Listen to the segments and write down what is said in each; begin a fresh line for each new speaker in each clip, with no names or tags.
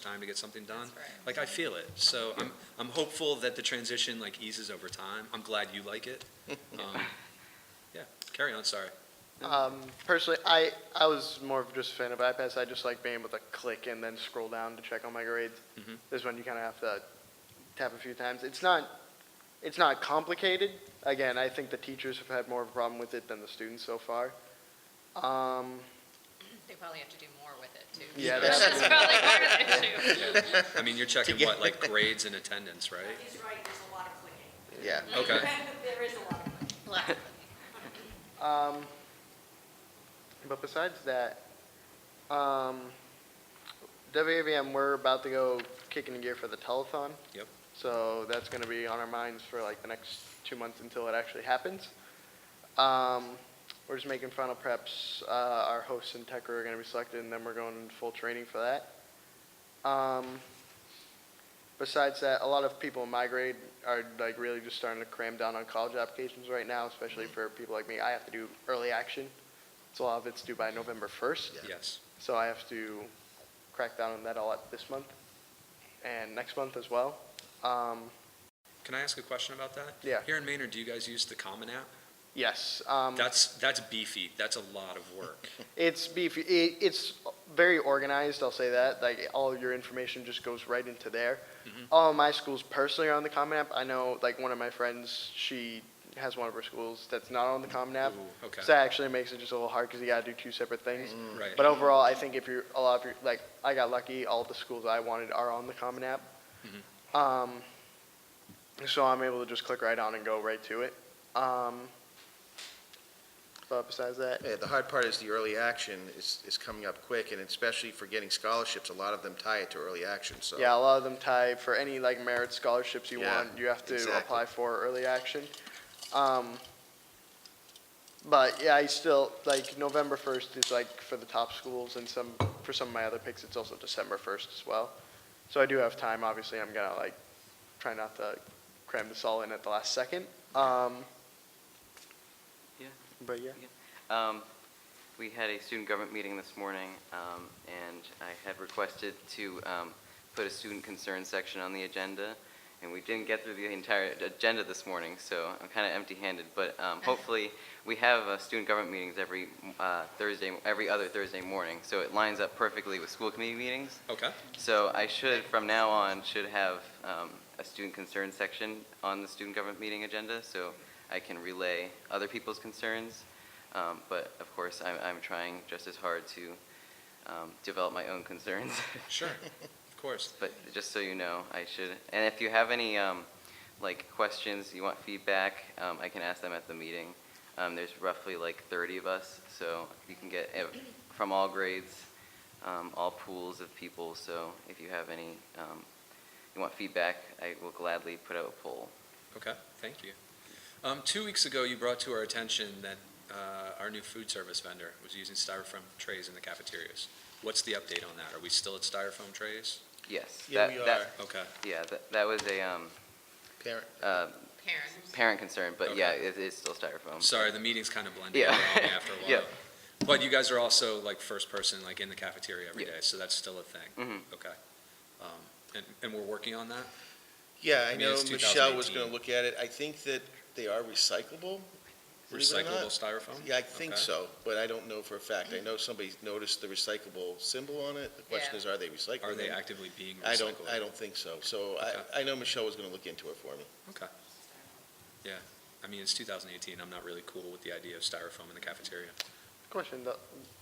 time to get something done.
That's right.
Like, I feel it. So I'm, I'm hopeful that the transition like eases over time. I'm glad you like it. Um, Yeah, carry on, sorry.
Um, personally, I, I was more of just a fan of iPads. I just like being able to click and then scroll down to check on my grades.
Mhm.
This one you kind of have to tap a few times. It's not, it's not complicated. Again, I think the teachers have had more of a problem with it than the students so far. Um,
They probably have to do more with it, too.
Yeah,
That's
that's-
probably part of the issue.
Yeah. I mean, you're checking what, like grades and attendance, right?
He's right, there's a lot of clicking.
Yeah.
Okay.
There is a lot of clicking.
Lack of it.
um, but besides that, um, WAVM, we're about to go kicking in gear for the telethon.
Yep.
So that's going to be on our minds for like the next two months until it actually happens. Um, we're just making final preps. Uh, our hosts and Tecker are going to be selected, and then we're going into full training for that. Um, besides that, a lot of people in my grade are like really just starting to cram down on college applications right now, especially for people like me. I have to do early action, so a lot of it's due by November 1st.
Yes.
So I have to crack down on that a lot this month and next month as well. Um,
Can I ask a question about that?
Yeah.
Here in Maynard, do you guys use the Common App?
yes, um,
That's, that's beefy. That's a lot of work.
it's beefy. It, it's very organized. I'll say that. Like all your information just goes right into there.
Mm-hmm.
All of my schools personally are on the Common App. I know, like one of my friends, she has one of her schools that's not on the Common App.
Ooh, okay. Mm,
So that actually makes it just a little hard because you gotta do two separate things.
Right.
But overall, I think if you're a lot of your like, I got lucky. All the schools I wanted are on the Common App.
Mm-hmm.
Um, so I'm able to just click right on and go right to it. Um, but besides that,
Yeah, Uh, the hard part is the early action is, is coming up quick, and especially for getting scholarships, a lot of them tie it to early action, so.
Yeah, a lot of them tie for any like merit scholarships you
Yeah,
want, you have to
exactly.
apply for early action. Um, but yeah, I still like November first is like for the top schools, and some for some of my other picks, it's also December first as well. So I do have time. Obviously, I'm gonna like try not to cram this all in at the last second. Um,
Yeah.
But yeah.
Um, We had a student government meeting this morning, um, and I had requested to um, put a student concern section on the agenda, and we didn't get through the entire agenda this morning, so I'm kind of empty-handed, but um, hopefully, we have uh, student government meetings every uh, Thursday, every other Thursday morning, so it lines up perfectly with school committee meetings.
Okay.
So I should, from now on, should have um, a student concern section on the student government meeting agenda, so I can relay other people's concerns. Um, But of course, I'm, I'm trying just as hard to um, develop my own concerns.
Sure. Of course.
But just so you know, I should, and if you have any, um, like, questions, you want feedback, um, I can ask them at the meeting. Um, There's roughly like 30 of us, so you can get ev- from all grades, um, all pools of people, so if you have any, um, you want feedback, I will gladly put out a poll.
Okay, thank you. Um, two weeks ago, you brought to our attention that, uh, our new food service vendor was using styrofoam trays in the cafeterias. What's the update on that? Are we still at styrofoam trays?
Yes.
Yeah,
that-
we
that-
are.
Okay,
Yeah, that- that was a um,
Parent,
uh,
Parents.
parent concern, but
Okay.
yeah, it is still styrofoam.
sorry, the meeting's kind of blending
Yeah.
around me after a while.
Yeah.
But you guys are also like first person, like in the cafeteria every
Yeah.
day, so that's still a thing?
Mhm.
Okay. Um, and, and we're working on that?
yeah,
I
I
mean,
know
it's
Michelle was
2018.
gonna look at it, I think that they are recyclable. believe it or
Recyclable
not.
styrofoam?
Yeah, I think
Okay.
so, but I don't know for a fact, I know somebody noticed the recyclable symbol on it, the question
Yeah.
is, are they recyclable?
Are they actively being recycled?
I don't, I don't think so, so
Okay.
I, I know Michelle was gonna look into it for me.
Okay. Yeah, I mean, it's 2018, I'm not really cool with the idea of styrofoam in the cafeteria.
Question, the-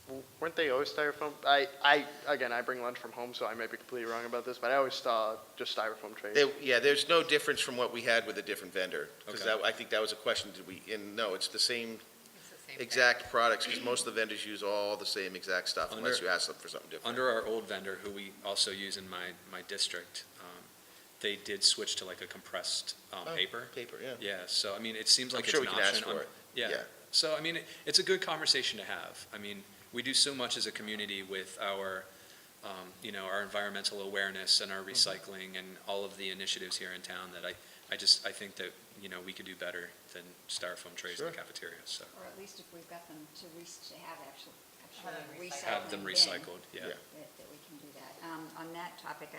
w- weren't they always styrofoam? I, I, again, I bring lunch from home, so I may be completely wrong about this, but I always saw just styrofoam trays.
They, yeah, there's no difference from what we had with a different vendor,
Okay.
because that, I think that was a question, did we, and no, it's the same
It's the same thing.
exact products, because most of the vendors use all the same exact stuff, unless
Under-
you ask them for something different.
Under our old vendor, who we also use in my, my district, um, they did switch to like a compressed um,
Oh,
paper.
Paper, yeah.
Yeah, so I mean, it seems
I'm
like it's
sure
an
we
option.
can ask for
I'm-
it.
Yeah,
Yeah.
so I mean, it- it's a good conversation to have. I mean, we do so much as a community with our, um, you know, our environmental awareness and our
Mm-hmm.
recycling and all of the initiatives here in town that I, I just, I think that, you know, we could do better than styrofoam trays in the
Sure.
cafeteria, so.
Or at least if we've got them to re, to have actual,
Have them recycled.
actually recycled.
Have them
bin,
recycled, yeah.
Yeah.
That, that we can do that. um, on that topic,